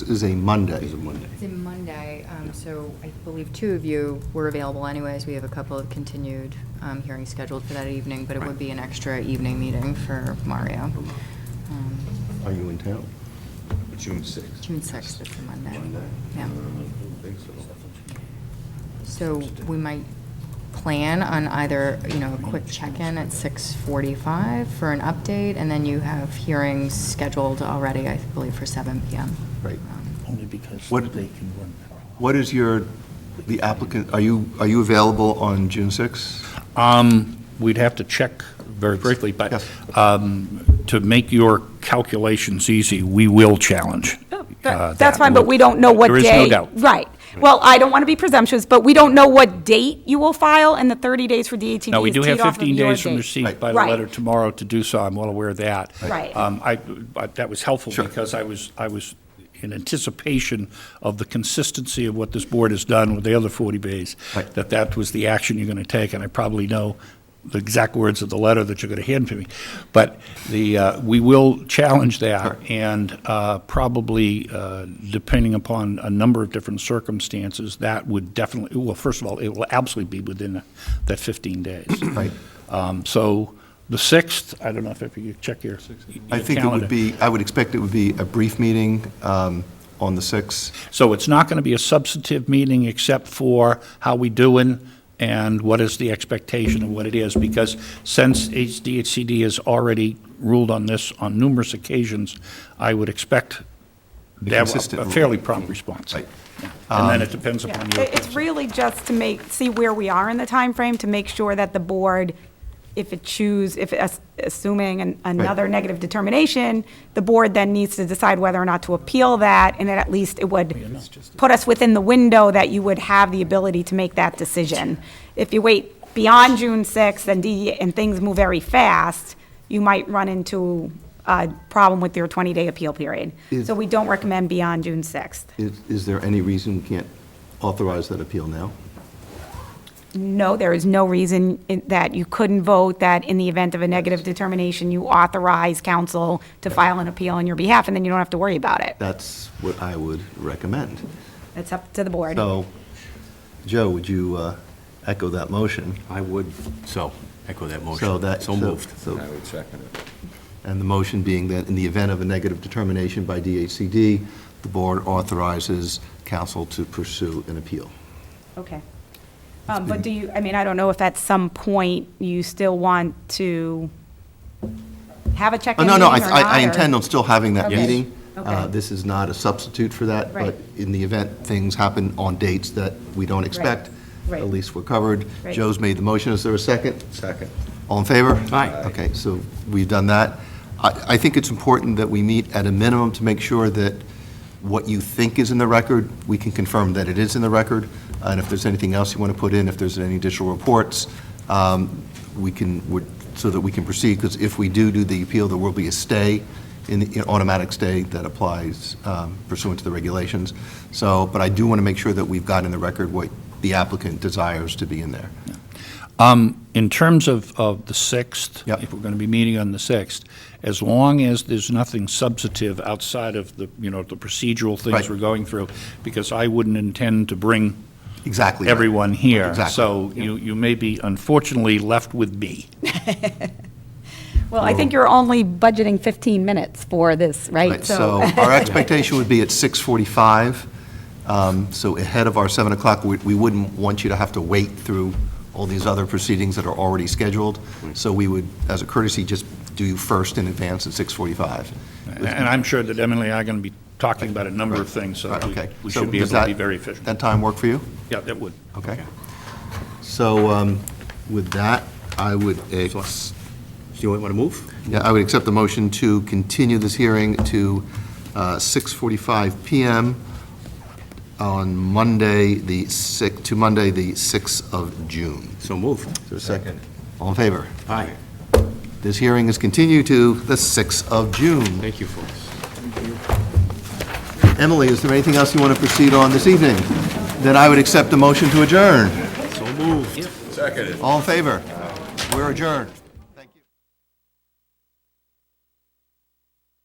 is a Monday. Is a Monday. It's a Monday, um, so I believe two of you were available anyways. We have a couple of continued um, hearings scheduled for that evening, but it would be an extra evening meeting for Mario. Um, Are you in town? June 6th. June 6th is the Monday. Monday? Yeah. I don't think so. So we might plan on either, you know, a quick check-in at 6:45 for an update, and then you have hearings scheduled already, I believe, for 7 PM. Right. Um, Only because What- they can run What is your, the applicant, are you, are you available on June 6th? Um, We'd have to check very briefly, but Yes. um, to make your calculations easy, we will challenge. uh, That- Oh, That's fine, but We'll- we don't know what day. There is no doubt. Right. Well, I don't want to be presumptuous, but we don't know what date you will file, and the 30 days for DATD is No, we do have teed off of 15 your days from date. receipt Right. by the Right. letter tomorrow to do so, I'm well aware of that. Right. Um, I, but that was helpful Sure. because I was, I was in anticipation of the consistency of what this board has done with the other 40 Bs, Right. that that was the action you're going to take, and I probably know the exact words of the letter that you're going to hand to me. But the, uh, we will challenge that, and uh, probably, uh, depending upon a number of different circumstances, that would definitely, well, first of all, it will absolutely be within that 15 days. Right. Um, So the 6th, I don't know if if you check your I your think it calendar. would be, I would expect it would be a brief meeting um, on the 6th. So it's not going to be a substantive meeting except for how we doing and what is the expectation and what it is, because since HDHCD has already ruled on this on numerous occasions, I would expect to have consistent a- a rule. fairly prompt response. Right. Um, And then it depends Yeah. upon It- your. It's really just to make, see where we are in the time frame to make sure that the board, if it choose, if, as- assuming an- another negative determination, the board then needs to decide whether or not to appeal that, and then at least it would put us within the window that you would have the ability to make that decision. If you wait beyond June 6th and D, and things move very fast, you might run into a problem with your 20-day appeal period. Is- So we don't recommend beyond June 6th. Is is there any reason we can't authorize that appeal now? No, there is no reason in- that you couldn't vote that in the event of a negative determination, you authorize council to file an appeal on your behalf, and then you don't have to worry about it. That's what I would recommend. It's up to the board. So, Joe, would you uh, echo that motion? I would, so, echo that motion. So that- So so- moved. so- I would second it. And the motion being that in the event of a negative determination by DHCD, the board authorizes council to pursue an appeal. Okay. Um, But do you, I mean, I don't know if at some point you still want to have a Oh, check-in no, meeting no, or I- not? I I intend or- on still having that Okay. meeting. Yes. Uh, Okay. This is not a substitute for that, but Right. in the event things happen on dates that we don't expect, Right. at least we're covered. Right. Joe's made the motion, is there a second? Second. All in favor? Aye. Okay, so we've done that. I, I think it's important that we meet at a minimum to make sure that what you think is in the record, we can confirm that it is in the record, and if there's anything else you want to put in, if there's any additional reports, um, we can, would- so that we can proceed, because if we do do the appeal, there will be a stay, an an automatic stay that applies um, pursuant to the regulations. So, but I do want to make sure that we've got in the record what the applicant desires to be in there. Um, In terms of, of the 6th, Yep. if we're going to be meeting on the 6th, as long as there's nothing substantive outside of the, you know, the procedural Right. things we're going through, because I wouldn't intend to bring Exactly. right. everyone here. Exactly. So you, you may be unfortunately left with me. Well, I think you're only budgeting 15 minutes for this, right? Right, so our expectation would be at 6:45, um, so ahead of our 7 o'clock. We we wouldn't want you to have to wait through all these other proceedings that are already scheduled, so we would, as a courtesy, just do you first in advance at 6:45. And I'm sure that Emily and I are going to be talking about a number of things, so Right, we- Okay. we So should be does able to that- be very efficient. That time work for you? Yeah, that would. Okay. So um, with that, I would, ex- Do you want to move? yeah, I would accept the motion to continue this hearing to uh, 6:45 PM on Monday, the 6th, to Monday, the 6th of June. So moved. Is there a second? All in favor? Aye. This hearing is continued to the 6th of June. Thank you, folks. Emily, is there anything else you want to proceed on this evening? Then I would accept the motion to adjourn. So moved. Second. All in favor? We're adjourned.